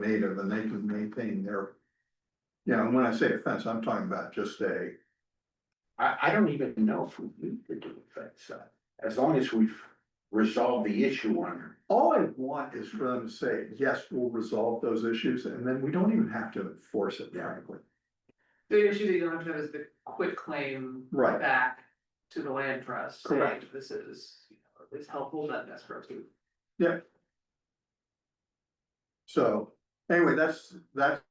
native and they can maintain their. Yeah, and when I say a fence, I'm talking about just a, I, I don't even know if we need to do a fence up, as long as we've resolved the issue on. all I want is for them to say, yes, we'll resolve those issues and then we don't even have to enforce it frankly. The issue that you'll have to have is the quit claim Right, back to the land trust. saying Correct. This is, you know, it's helpful, not necessary. so anyway, that's, that's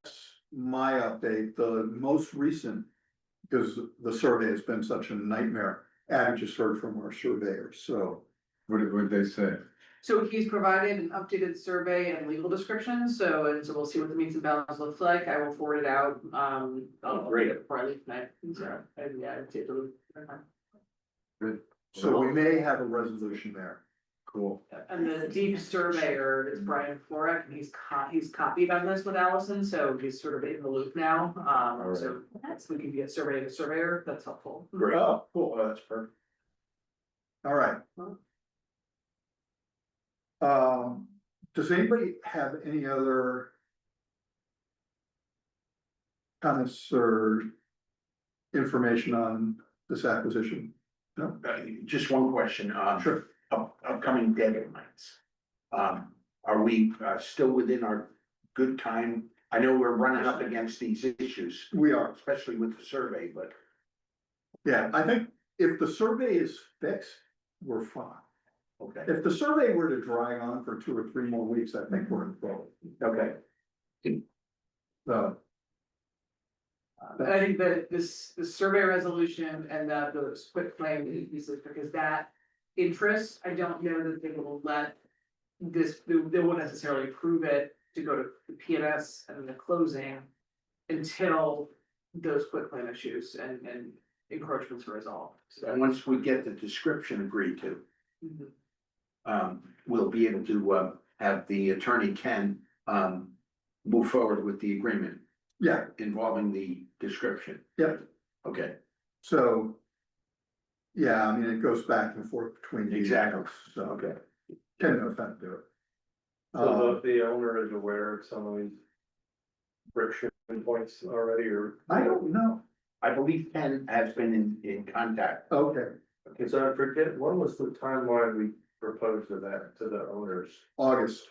my update. The most recent. Because the survey has been such a nightmare. And I just heard from our surveyor, so. What did, what did they say? So he's provided an updated survey and legal description, so, and so we'll see what the means and bounds looks like, I will forward it out, um. Oh, I'll- Great. Before I leave tonight, and so, and yeah, it's, it'll- So we may have a resolution there. Cool. and the deep surveyor is Brian Florek, and he's co- he's copied on this with Allison, so he's sort of in the loop now, um, so. That's, we can get survey to surveyor, that's helpful. Oh, Cool, that's perfect. All right. Huh? Um, does anybody have any other? Comments or information on this acquisition? Uh, just one question, um, Sure. up- upcoming deadlines. Um, are we, uh, still within our good time? I know we're running up against these issues, We are, especially with the survey, but yeah, I think if the survey is fixed, we're fine. okay, If the survey were to drag on for two or three more weeks, I think we're in trouble, okay. so. Um, And I think that this, the survey resolution and the, the quit claim pieces, because that interest, I don't know that they will let. This, they they won't necessarily prove it to go to the PNS and the closing until those quit claim issues and, and encroachments are resolved, And so. once we get the description agreed to, mhm. um, we'll be able to, uh, have the attorney Ken, um, move forward with the agreement Yeah, involving the description. Yep. Okay, so. Yeah, I mean, it goes back and forth between. the- Exactly. So, okay. can no offense to it. So Uh, the, the owner is aware of some of these friction points already, or? I don't know, I believe Ken has been in, in contact. okay, Cause I forget, what was the timeline we proposed to that, to the owners? August.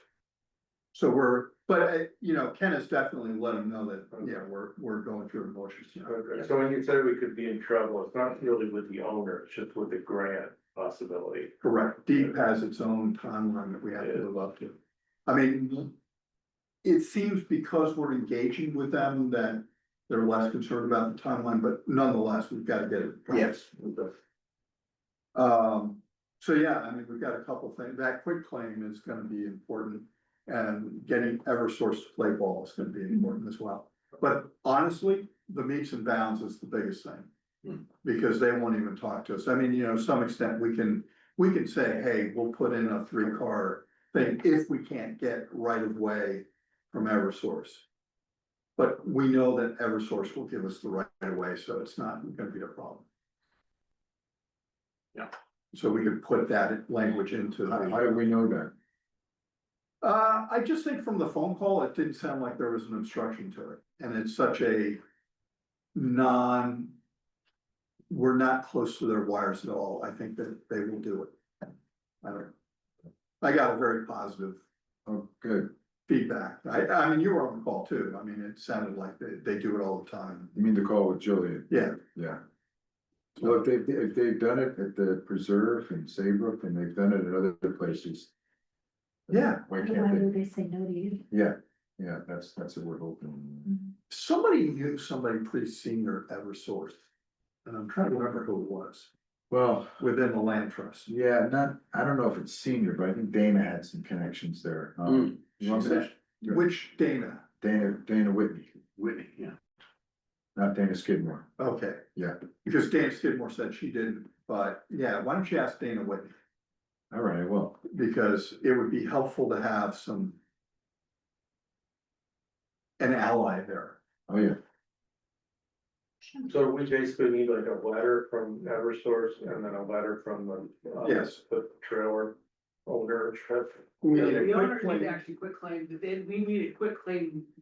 So we're, but, uh, you know, Ken has definitely let him know that, yeah, we're, we're going through the motions. you know. Okay, So when you say we could be in trouble, it's not really with the owner, it's just with the grant possibility. Correct, deep has its own timeline that we have to live up to. I mean. It seems because we're engaging with them that they're less concerned about the timeline, but nonetheless, we've got to get it. Yes. Um, so yeah, I mean, we've got a couple things, that quick claim is gonna be important. And getting Eversource to play ball is gonna be important as well. But honestly, the meets and bounds is the biggest Hmm. thing. Because they won't even talk to us. I mean, you know, to some extent, we can, we can say, hey, we'll put in a three car thing if we can't get right of way from Eversource. But we know that Eversource will give us the right of way, so it's not gonna be a problem. So we could put that language into How, the, how did we know that? uh, I just think from the phone call, it didn't sound like there was an obstruction to it, and it's such a non. We're not close to their wires at all, I think that they will do it. I don't. I got a very positive Oh, good. feedback, I, I mean, you were on the call too, I mean, it sounded like they, they do it all the time, You mean the call with Jillian? yeah, Yeah. Well, if they, if they've done it at the preserve in Saybrook and they've done it at other places. Yeah. Why Why can't would they say no to you? Mm-hmm. they? Yeah, yeah, that's, that's what we're hoping. somebody knew somebody pretty senior at Eversource. And I'm trying to remember who it was, Well, within the land trust, yeah, not, I don't know if it's senior, but I think Dana had some connections there. Um, she Okay. said- which Dana, Dana, Dana Whitney, Whitney, yeah. not Dana Skidmore. okay. Yeah, Because Dana Skidmore said she didn't, but yeah, why don't you ask Dana Whitney? all right, well. Because it would be helpful to have some. An ally there. Oh, yeah, So we basically need like a letter from Eversource and then a letter from the. uh, Yes. The trailer older trip. We need a The owner quick did claim. actually quit claim, but then we need a quit claim